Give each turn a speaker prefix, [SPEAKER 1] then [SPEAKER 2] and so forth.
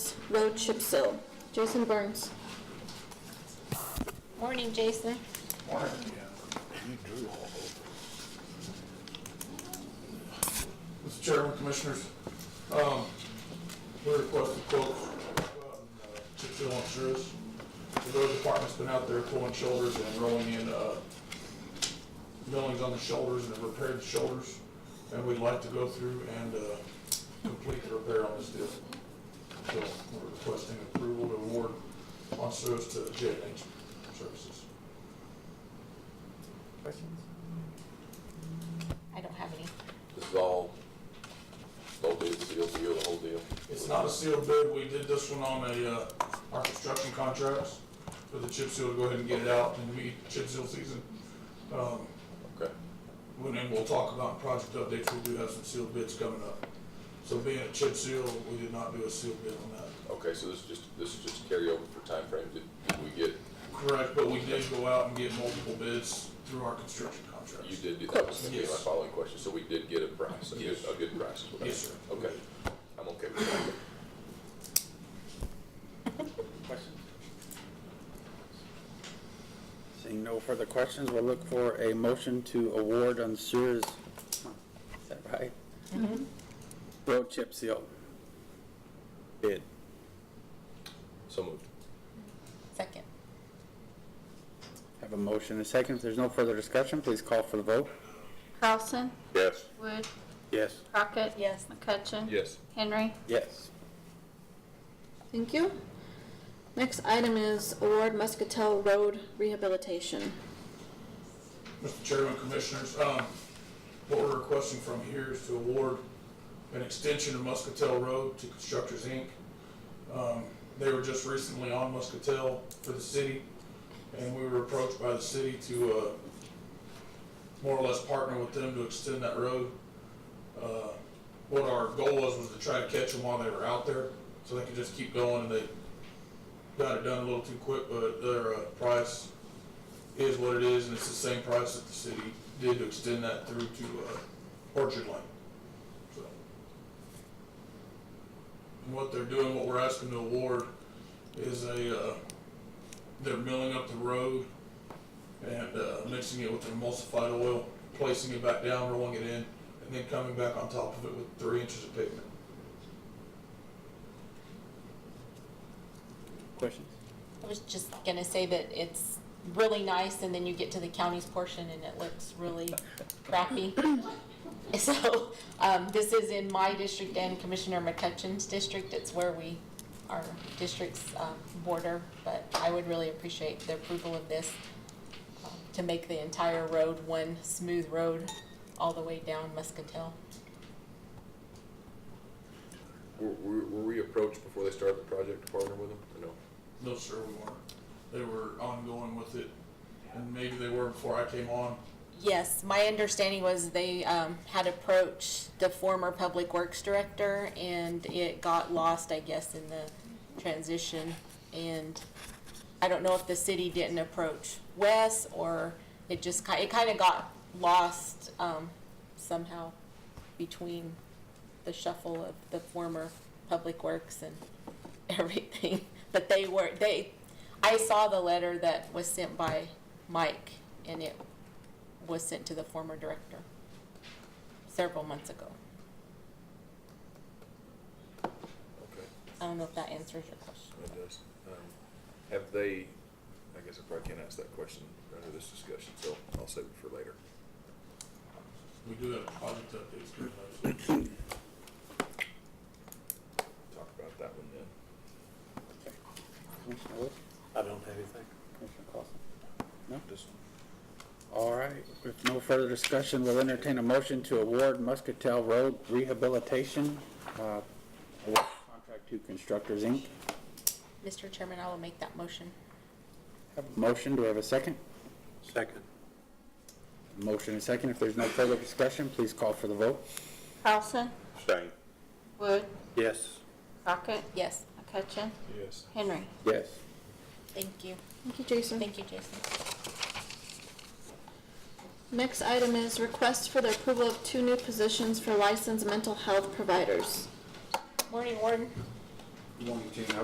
[SPEAKER 1] Road chip seal. Jason Burns.
[SPEAKER 2] Morning, Jason.
[SPEAKER 3] Mr. Chairman, Commissioners, um, we requested quotes on uh, chip seal insurance. The road department's been out there pulling shoulders and rolling in uh, millings on the shoulders and repaired the shoulders. And we'd like to go through and uh, complete the repair on this deal. So we're requesting approval to award on service to J and H Services.
[SPEAKER 2] I don't have any.
[SPEAKER 4] This is all, no bid, seal deal, the whole deal.
[SPEAKER 3] It's not a sealed bid, we did this one on a, uh, our construction contracts for the chip seal, to go ahead and get it out and meet chip seal season. Um,
[SPEAKER 4] Okay.
[SPEAKER 3] when, and we'll talk about project updates, we do have some sealed bids coming up. So being a chip seal, we did not do a sealed bid on that.
[SPEAKER 4] Okay, so this is just, this is just carryover for timeframe. Did, did we get,
[SPEAKER 3] Correct, but we did go out and get multiple bids through our construction
[SPEAKER 4] you
[SPEAKER 3] contracts.
[SPEAKER 4] did, do- that was gonna be my
[SPEAKER 3] Yes.
[SPEAKER 4] following question. So we did get a price, a good,
[SPEAKER 3] Yes.
[SPEAKER 4] a good price. is what I-
[SPEAKER 3] Yes, sir.
[SPEAKER 4] Okay, I'm okay with that.
[SPEAKER 5] Questions? Seeing no further questions, we'll look for a motion to award on sewers, is that right? Road chip seal. Bid.
[SPEAKER 4] So moved.
[SPEAKER 2] Second.
[SPEAKER 5] Have a motion and a second. If there's no further discussion, please call for the vote.
[SPEAKER 1] Carlson.
[SPEAKER 4] Yes.
[SPEAKER 1] Wood.
[SPEAKER 5] Yes.
[SPEAKER 1] Crockett.
[SPEAKER 2] Yes.
[SPEAKER 1] McCutcheon.
[SPEAKER 4] Yes.
[SPEAKER 1] Henry.
[SPEAKER 5] Yes.
[SPEAKER 1] Thank you. Next item is award Muscatel Road rehabilitation.
[SPEAKER 3] Mr. Chairman, Commissioners, um, what we're requesting from here is to award an extension of Muscatel Road to Constructors Inc. Um, They were just recently on Muscatel for the city, and we were approached by the city to, uh, more or less partner with them to extend that road. Uh, What our goal was, was to try to catch them while they were out there, so they could just keep going, and they got it done a little too quick, but their uh, price is what it is, and it's the same price that the city did to extend that through to uh, Orchard Lane. So, And what they're doing, what we're asking to award is a, uh, they're milling up the road and uh, mixing it with their emulsified oil, placing it back down, rolling it in, and then coming back on top of it with three inches of pavement.
[SPEAKER 5] Questions?
[SPEAKER 2] I was just gonna say that it's really nice, and then you get to the county's portion, and it looks really crappy. So, um, this is in my district and Commissioner McCutcheon's district. It's where we, our districts, um, border, but I would really appreciate the approval of this um, to make the entire road one smooth road all the way down Muscatel.
[SPEAKER 4] Were, were were we approached before they started the project to partner with them? or No.
[SPEAKER 3] No, sir, we weren't. They were ongoing with it, and maybe they were before I came on.
[SPEAKER 2] Yes, my understanding was they um, had approached the former Public Works Director, and it got lost, I guess, in the transition. And I don't know if the city didn't approach Wes, or it just ki, it kind of got lost um, somehow between the shuffle of the former Public Works and everything. But they were, they, I saw the letter that was sent by Mike, and it was sent to the former director several months ago.
[SPEAKER 4] Okay.
[SPEAKER 2] I don't know if that answers your question.
[SPEAKER 4] It does. Um, Have they, I guess I probably can't ask that question under this discussion, so I'll save it for later.
[SPEAKER 3] We do have project updates coming up. so-
[SPEAKER 4] Talk about that one then.
[SPEAKER 5] Commissioner Wood?
[SPEAKER 6] I don't have anything.
[SPEAKER 5] Commissioner Clausen?
[SPEAKER 6] Just
[SPEAKER 5] All right, with no further discussion, we'll entertain a motion to award Muscatel Road rehabilitation, uh, award contract to Constructors, Inc.
[SPEAKER 2] Mr. Chairman, I will make that motion.
[SPEAKER 5] Have a Motion, do we have a second?
[SPEAKER 6] second.
[SPEAKER 5] Motion and second. If there's no further discussion, please call for the vote.
[SPEAKER 1] Carlson.
[SPEAKER 4] Stein.
[SPEAKER 1] Wood.
[SPEAKER 6] Yes.
[SPEAKER 1] Crockett.
[SPEAKER 2] Yes,
[SPEAKER 1] McCutcheon.
[SPEAKER 4] Yes.
[SPEAKER 1] Henry.
[SPEAKER 5] Yes.
[SPEAKER 2] thank you.
[SPEAKER 1] Thank you, Jason.
[SPEAKER 2] Thank you, Jason.
[SPEAKER 1] Next item is request for the approval of two new positions for licensed mental health providers.
[SPEAKER 2] Morning, Warden.
[SPEAKER 7] Morning, Tina.